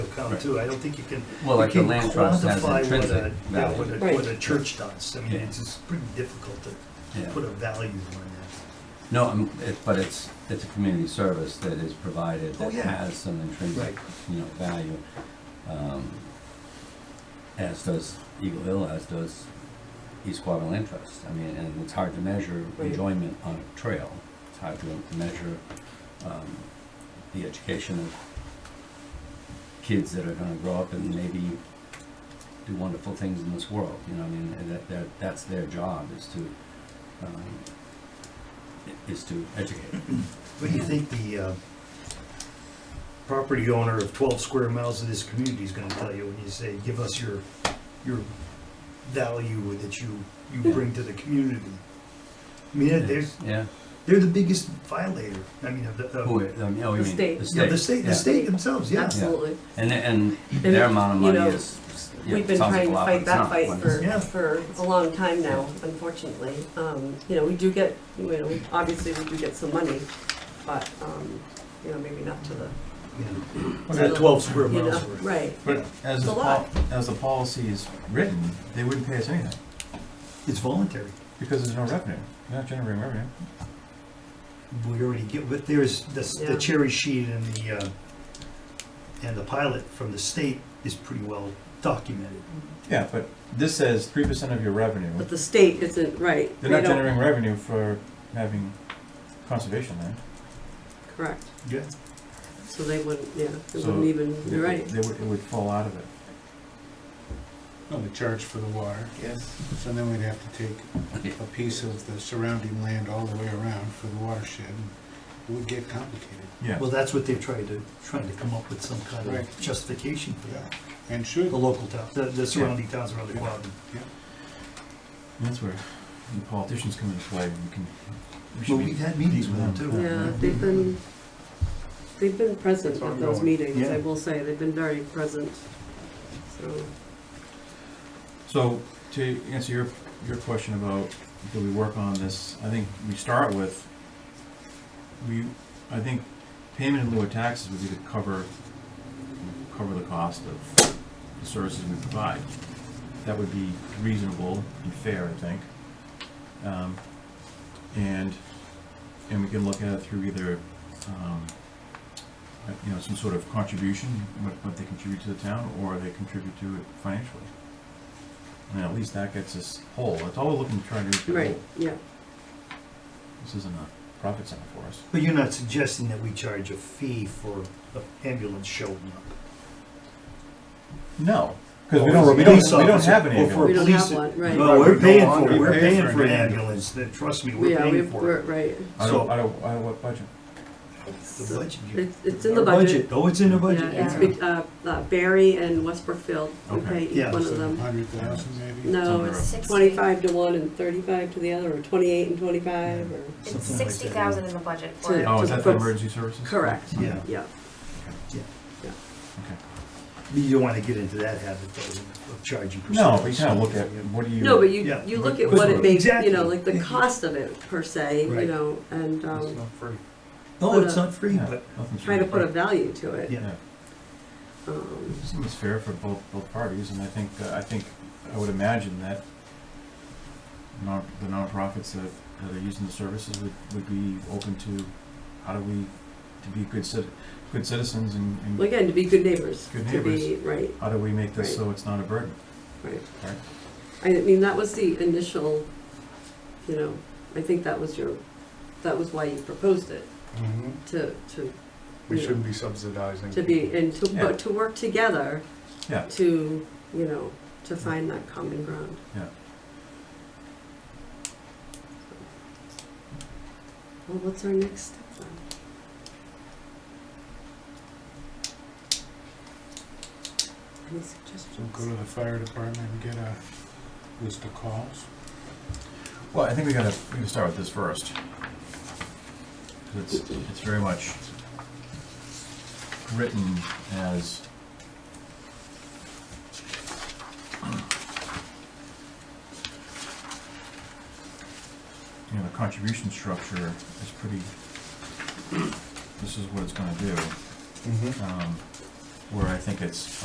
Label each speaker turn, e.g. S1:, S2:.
S1: come too. I don't think you can.
S2: Well,
S1: you
S2: like the
S1: can
S2: land trust has
S1: quantify what
S2: intrinsic
S1: a- yeah,
S2: value.
S1: What a,
S3: Right.
S1: what a church does. I mean,
S2: Yeah.
S1: it's just pretty difficult to
S2: Yeah.
S1: put a value on that.
S2: No, I'm- it- but it's, it's a community service that is provided
S1: Oh,
S2: that
S1: yeah.
S2: has some intrinsic,
S1: Right.
S2: you know, value. um, As does Eagle Hill, as does East Quabbin Land Trust. I mean, and it's hard to measure
S3: Right.
S2: enjoyment on a trail. It's hard to to measure um, the education of kids that are gonna grow up and maybe do wonderful things in this world, you know, I mean, and that, that, that's their job is to, um, i- is to educate.
S1: What do you think the uh, property owner of 12 square miles of this community is going to tell you when you say, "Give us your your value that you you
S2: Yeah.
S1: bring to the community"? I mean, they're- they're
S2: Yeah,
S1: they're the biggest violator. I mean, of the of,
S2: who, I mean, oh, you
S3: The
S2: mean,
S3: state.
S2: the
S1: yeah, the
S2: state,
S1: state,
S2: yeah.
S1: the state themselves. Yeah.
S3: Absolutely.
S2: And, and
S3: And,
S2: their amount of
S3: you
S2: money
S3: know,
S2: is, yeah,
S3: We've been
S2: sounds like
S3: trying
S2: a
S3: to
S2: lot, but
S3: fight
S2: it's
S3: that
S2: not.
S3: fight
S2: When
S3: for,
S2: it's-
S1: Yeah.
S3: for a long time now, unfortunately. Um, You know, we do get, you know, obviously we do get some money, but, um, you know, maybe not to the,
S1: Yeah.
S4: Well,
S1: That
S4: that-
S1: 12 square
S3: you
S1: miles
S3: know,
S1: worth.
S3: right.
S4: But as
S3: It's
S4: the,
S3: a lot.
S4: pol- as the policy is written, they wouldn't pay us anything,
S1: It's voluntary.
S4: because there's no revenue, you're not generating revenue.
S1: We already get, but there's, this- the
S3: Yeah.
S1: cherry sheet and the, uh, and the pilot from the state is pretty well documented.
S4: Yeah, but this says three percent of your revenue,
S3: But the state isn't, right.
S4: they're
S3: They
S4: not
S3: don't-
S4: generating revenue for having conservation land.
S3: Correct.
S1: Yeah.
S3: So they wouldn't, yeah, they
S4: So-
S3: wouldn't even, you're right.
S4: They would, it would fall out of it.
S5: No, we charge for the water. Yes. So then we'd have to take a piece of the surrounding land all the way around for the watershed. and It would get complicated,
S4: Yeah,
S1: Well, that's what they're trying to, trying to come up with some kind of
S5: Right.
S1: justification for that.
S5: and should.
S1: The local town, the, the surrounding towns around the quad.
S4: that's where the politicians come into play, we can, we
S1: Well,
S4: should
S1: we've
S4: be,
S1: had meetings with them too.
S3: Yeah, they've been, they've been present
S5: It's
S3: at those
S5: ongoing.
S3: meetings,
S1: Yeah.
S3: I will say. They've been very present, so.
S4: so, to answer your, your question about, do we work on this, I think we start with, we, I think payment in lieu of taxes would be to cover, cover the cost of the services we provide. That would be reasonable and fair, I think. Um, And, and we can look at it through either, um, uh, you know, some sort of contribution, what, what they contribute to the town, or they contribute to it financially. And at least that gets us whole, that's all we're looking to try to do, is get
S3: Right,
S4: whole.
S3: yeah.
S4: This isn't a profit center for us.
S1: But you're not suggesting that we charge a fee for an ambulance showing up?
S4: No, because we
S1: Or for a
S4: don't, we don't,
S1: police
S4: we don't
S1: officer,
S4: have any
S1: or for a
S3: We
S4: ambulance.
S3: don't have
S1: police-
S3: one, right.
S1: No, we're
S5: No
S1: paying for,
S5: longer.
S1: it. we're
S5: We pay
S1: paying
S5: for
S1: for an
S5: an
S1: ambulance, Then trust me, we're
S3: Yeah, we,
S1: paying for
S3: we're,
S1: it.
S3: right.
S4: I
S1: So-
S4: don't, I don't, I don't, what budget?
S1: The budget. you-
S3: It's, it's in the
S1: Our
S3: budget.
S1: Oh, it's in the
S3: Yeah,
S1: budget.
S3: it's, be- uh, uh, Barry and Westbrookfield. we pay
S4: Okay.
S3: each
S1: Yeah,
S3: one of them.
S5: Hundred thousand maybe?
S3: No,
S4: under
S3: it's
S6: a-
S3: twenty-five to one and thirty-five to the other, or twenty-eight and twenty-five, or,
S6: It's
S1: Something like that.
S6: sixty thousand in the budget
S3: To-
S6: for it.
S4: Oh, is
S3: the
S4: that for
S3: folks-
S4: emergency services?
S3: correct,
S1: Yeah.
S3: yeah.
S4: Okay.
S1: You don't want to get into that habit though of of charging.
S4: No, we
S1: percentages.
S4: kind of look at, what do you?
S3: No, but you,
S1: Yeah.
S3: you look at what it makes, you know,
S1: Exactly.
S3: like the cost of it per se, you
S1: Right.
S3: know, and, um,
S1: No,
S3: But,
S1: Oh, it's
S3: uh,
S1: not free,
S4: Yeah,
S1: but
S4: nothing's
S3: try to put a
S4: free.
S3: value to it.
S1: Yeah.
S4: Yeah,
S3: Um,
S4: seems fair for both, both parties, and I think, uh, I think, I would imagine that non, the nonprofits that, that are using the services would, would be open to, how do we, to be good citi- good citizens and,
S3: Well,
S4: and
S3: again, to be good neighbors,
S4: Good
S3: to be, right,
S4: how do we make this so it's not a burden,
S3: right.
S4: right?
S3: I mean, that was the initial, you know, I think that was your, that was why you proposed it,
S5: Mhm.
S3: to, to,
S5: We
S3: Yeah.
S5: shouldn't be subsidizing.
S3: to be, and to,
S4: Yeah.
S3: but to work together
S4: Yeah.
S3: to, you know, to find that common ground.
S4: Yeah.
S3: Well, what's our next step then? Any
S5: So go
S3: suggestions?
S5: to the fire department and get a list of calls.
S4: Well, I think we gotta, we gotta start with this first. 'Cause It's, it's very much written as. You know, the contribution structure is pretty, this is what it's gonna do. Um, where I think it's